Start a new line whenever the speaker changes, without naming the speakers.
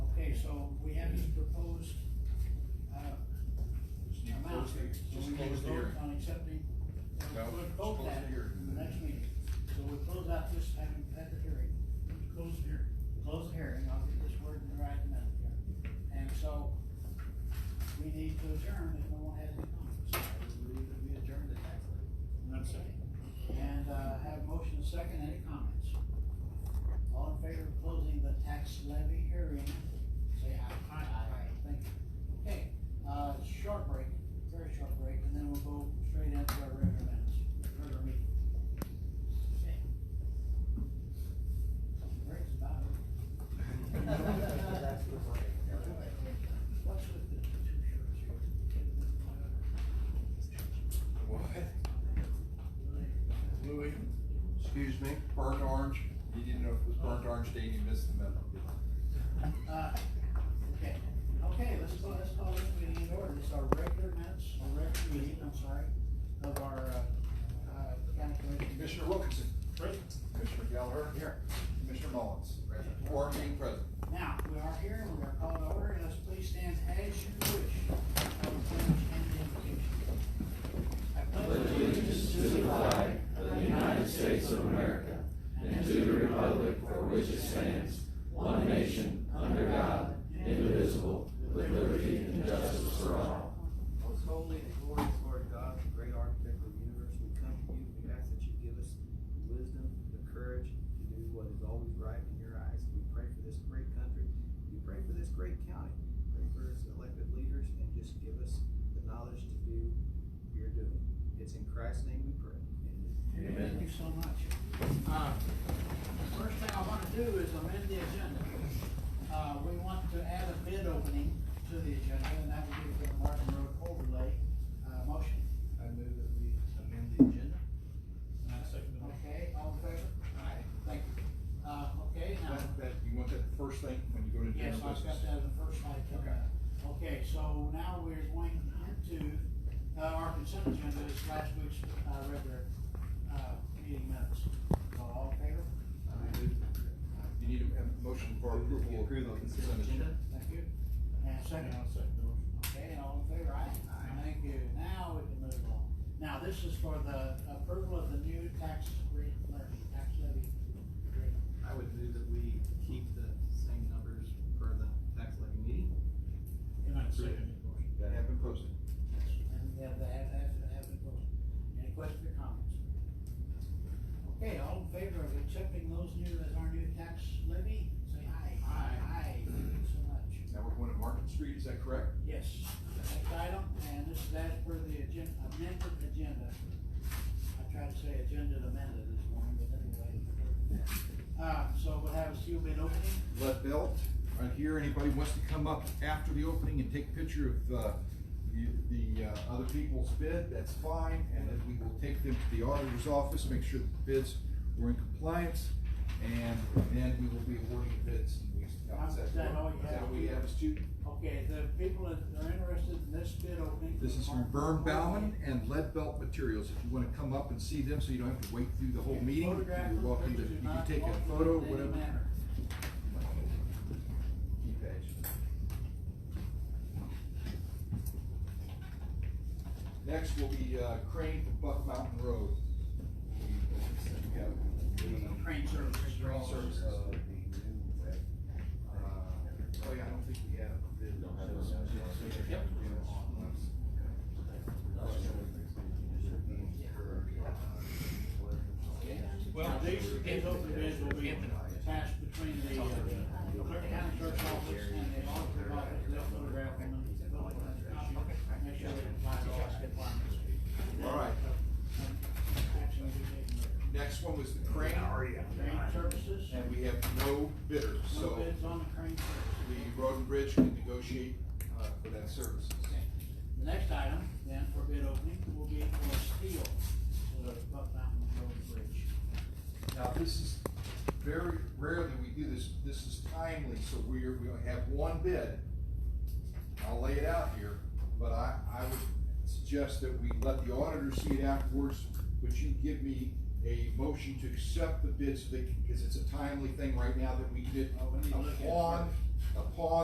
Just
uh, we need to
close the
vote
hearing.
On accepting,
No,
we'll
just
vote
close the
that
hearing.
in the next meeting, so we close out this, having had the hearing,
Close here.
close the hearing, I'll get this word in the right amount here. And so, we need to adjourn if no one has any comments. I would believe that we adjourn the tax
That's it.
levy. And, uh, have motion and second, any comments? All in favor of closing the tax levy hearing, say aye.
Aye.
Thank you. Okay, uh, short break, very short break, and then we'll go straight into our regular minutes, regular meeting. Okay. Break's about over. What's with the two shirts here?
What? Louis? Excuse me, burnt orange? You didn't know if it was burnt orange day, and you missed the memo.
Uh, Okay, okay, let's go, let's call this meeting in order, it's our regular minutes, our regular meeting, I'm sorry, of our, uh, uh, county commission.
Commissioner Wilkinson?
Present.
Commissioner Gallagher?
Here.
Commissioner Mullins? Four being present.
Now, we are here, we're gonna call to order, let's please stand as you wish. I will pledge an invocation. I pledge
allegiance to the flag of the United States of America and to the republic for which it stands, one nation, under God, indivisible, with liberty and justice for all.
Most holy and glorious Lord God, the great architect of the universe, we come to you, we ask that you give us the wisdom, the courage to do what is always right in your eyes. We pray for this great country, we pray for this great county, pray for its elected leaders, and just give us the knowledge to do your doing. It's in Christ's name we pray, amen.
Thank you so much. Uh, First thing I wanna do is amend the agenda. Uh, we want to add a bid opening to the agenda, and that would be the Martin Road overlay, uh, motion.
I move that we amend the agenda.
And I second the motion.
Uh, Okay, all in favor? Aye. Thank you. Uh, okay, now,
That, that, you want that first thing when you go to
yes,
general
I've
business?
got that in the first slide coming up. Okay, so now we're going into, uh, our consent agenda is last week's, uh, regular, uh, meeting minutes. So all in favor?
I move- You need a a motion for approval.
Approve the
of
consent agenda.
Thank you. And
And
second?
I second the motion.
Okay, and all in favor, aye?
Aye.
Thank you, now we can move on. Now, this is for the approval of the new tax rate levy, tax levy. rate.
I would move that we keep the same numbers for the tax levy meeting.
And I second the motion.
That have been posted.
And they have, they have, they have it voted. Any questions or comments? Okay, all in favor of accepting those new, as our new tax levy, say aye.
Aye.
Aye, thank you so much.
Now we're going to Market Street, is that correct?
Yes, next item, and this is as per the agenda, amended agenda. I tried to say agenda amended this morning, but anyway. Uh, so we'll have a sealed bid opening.
Lead belt, right here, anybody wants to come up after the opening and take a picture of, uh, you- the, uh, other people's bid, that's fine, and then we will take them to the auditor's office, make sure the bids were in compliance, and then we will be awarding bids in weeks to come. Is
Is that all you
Is that
have?
what you have, is two?
Okay, the people that are interested in this bid opening.
This is from Vern Bauman and Lead Belt Materials, if you wanna come up and see them, so you don't have to wait through the whole meeting,
Photograph
you're
them,
welcome to,
please do
you can
not
take a
alter them
photo,
in any
whatever.
manner.
Key page. Next will be uh, Crane for Buck Mountain Road. We got the
Crane service.
Crane service, uh, uh, Oh yeah, I don't think we have. the- Yep.
Well, these, these open bids will be passed between the uh, clerk county clerk's office and the auditor's office, they'll photograph them and they'll put them in the copy, make sure they comply with all the requirements.
All right.
Action will be taken there.
Next one was the crane,
Crane services,
and we have no bidders,
no
so
bids on the crane services.
the road and bridge can negotiate uh, for that service.
Okay. The next item then for bid opening will be for steel, for the Buck Mountain Road Bridge.
Now, this is very rarely we do this, this is timely, so we're, we only have one bid. I'll lay it out here, but I, I would suggest that we let the auditor see it afterwards, but you give me a motion to accept the bids, because it's a timely thing right now that we did
Oh, we need to look at it
upon, upon